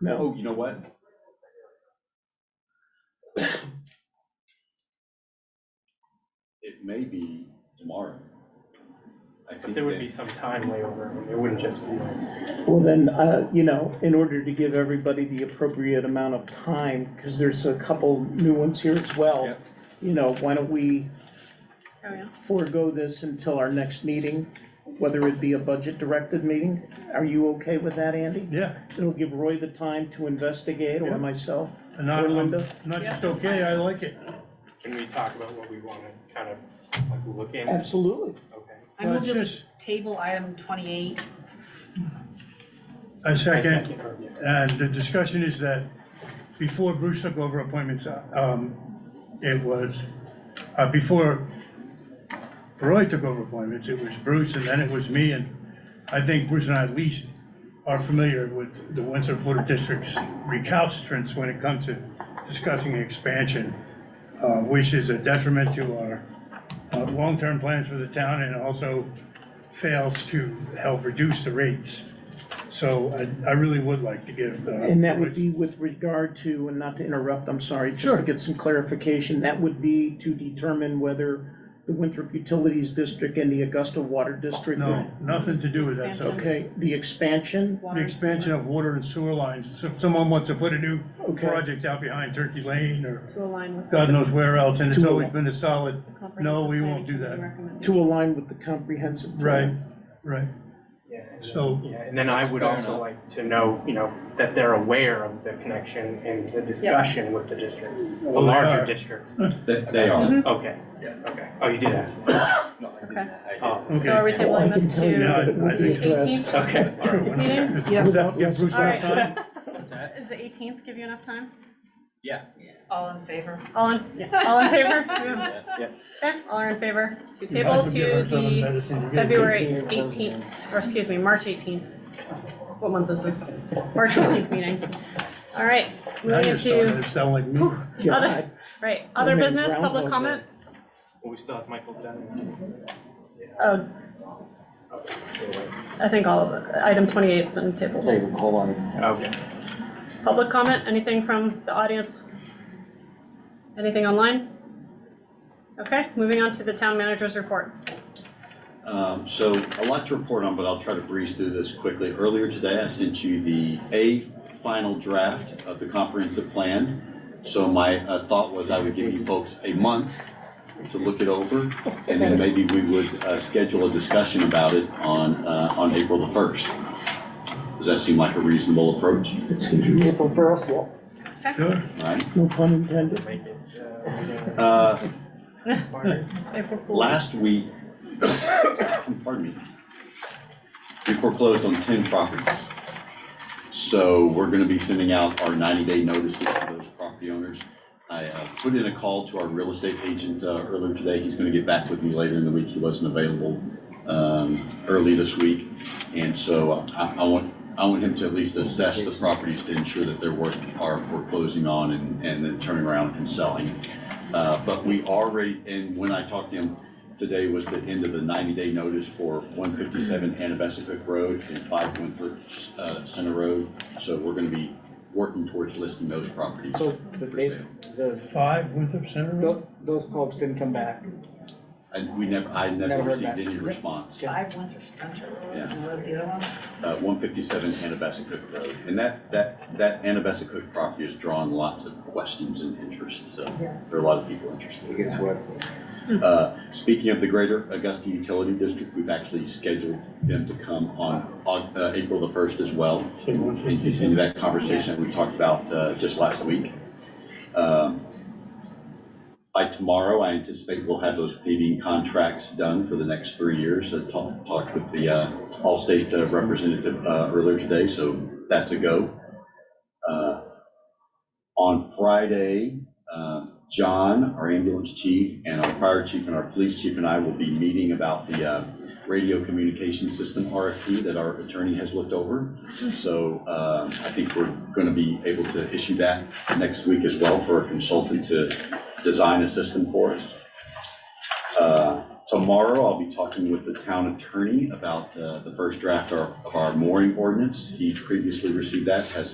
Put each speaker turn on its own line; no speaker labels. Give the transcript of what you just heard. No,
Oh, you know what? It may be tomorrow. I
But
think
there would be
that-
some time layover, I mean, it wouldn't just be like,
well then, uh, you know, in order to give everybody the appropriate amount of time, because there's a couple new ones here as well.
Yep.
You know, why don't we
Oh, yeah.
forego this until our next meeting, whether it be a budget directed meeting? Are you okay with that, Andy?
Yeah,
It'll give Roy the time to investigate
Yeah.
or myself.
and I,
Or
I'm
Linda?
not
Yeah,
just
that's
okay, I like it.
can we talk about what we wanna kind of like look in?
Absolutely.
Okay.
I
Well,
move
it's
that we
just-
table item twenty-eight.
I
I
second,
or, yeah.
and the discussion is that before Bruce took over appointments, um, it was, uh, before Roy took over appointments, it was Bruce and then it was me, and I think Bruce and I at least are familiar with the Windsor Water District's recalcitrance when it comes to discussing expansion, uh, which is a detriment to our uh, long-term plans for the town and also fails to help reduce the rates. So I, I really would like to give. uh,
And that would be with regard to, and not to interrupt, I'm sorry, just
Sure.
to get some clarification, that would be to determine whether the Winthrop Utilities District and the Augusta Water District.
No, nothing to do with that, so.
Okay, the expansion,
The expansion of water and sewer lines, so if someone wants to put a new
Okay.
project out behind Turkey Lane or
To align with.
God knows where else, and it's
To-
always been a solid,
the
no,
comprehensive
we
planning
won't do
committee
that.
recommendation.
to align with the comprehensive
Right,
plan.
right.
Yeah, and
So-
then- Yeah, and then I
That's
would
fair
also
enough.
like to know, you know, that they're aware of the connection and the discussion with the district, the
Well, they
larger
are.
district.
that they are.
Okay, yeah, okay. Oh, you did ask.
No, I didn't.
Okay.
I didn't.
Oh,
Okay.
So are we
Well, I
tabling
can
this
tell you
Yeah,
that
I-
to
it will
I
the
be
think so.
eighteenth?
okay, all right.
Alright,
Yeah.
we're not-
Yeah.
Does that give Bruce enough
All
time?
What's that?
Is the eighteenth give you enough time?
Yeah.
All in favor? All in, all in favor? Yeah.
Yeah.
Okay, all are in favor to
You
table
guys
to
will give her some
the
medicine, you're good.
February eighteenth, or excuse me, March eighteenth. What month is this? March eighteenth meeting. All right,
Now
moving
you're starting to
into,
sound like me.
Yeah,
Other-
I-
right, other
Okay,
business,
Groundhog
public
Day.
comment?
Well, we still have Michael Dunn.
Oh,
Okay.
I think all of it, item twenty-eight's been tabled.
David, hold on.
Okay.
Public comment, anything from the audience? Anything online? Okay, moving on to the town manager's report.
Um, so a lot to report on, but I'll try to breeze through this quickly. Earlier today, I sent you the A final draft of the comprehensive plan. So my uh, thought was I would give you folks a month to look it over, and then maybe we would uh, schedule a discussion about it on, uh, on April the first. Does that seem like a reasonable approach?
It seems reasonable.
Sure.
All right.
No pun intended.
Make it, uh,
Uh,
Margaret.
April Fool's.
Last week, pardon me, we foreclosed on ten properties. So we're gonna be sending out our ninety-day notices to those property owners. I uh, put in a call to our real estate agent uh, earlier today. He's gonna get back with me later in the week. He wasn't available um, early this week. And so I, I want, I want him to at least assess the properties to ensure that they're worth our foreclosing on and, and then turning around and selling. Uh, But we already, and when I talked to him today was the end of the ninety-day notice for one fifty-seven Anabesic Road and five Winthrop uh, Center Road. So we're gonna be working towards listing those properties
So the,
for sale.
ba- the,
Five Winthrop Center Road?
tho- those folks didn't come back.
And we never, I never
Never heard
received
back.
any
Yep.
response.
Yep.
Five Winthrop Center Road,
Yeah.
and what was the other one?
Uh, one fifty-seven Anabesic Road. And that, that, that Anabesic property has drawn lots of questions and interest, so there are a lot of people interested. in that.
Here's what-
Uh, Speaking of the Greater Augusta Utility District, we've actually scheduled them to come on Au- uh, April the 1st as well,
Say one
and
fifty
continue
seven.
that conversation that we talked about uh, just last week. Um, By tomorrow, I anticipate we'll have those paving contracts done for the next three years. I talked talked with the uh, Allstate uh, representative uh, earlier today, so that's a go. Uh, On Friday, uh, John, our ambulance chief, and our fire chief and our police chief and I will be meeting about the uh, radio communication system RFP that our attorney has looked over. So uh, I think we're going to be able to issue that next week as well for a consultant to design a system for us. Uh, Tomorrow, I'll be talking with the town attorney about uh, the first draft of our- of our mooring ordinance. He previously received that, has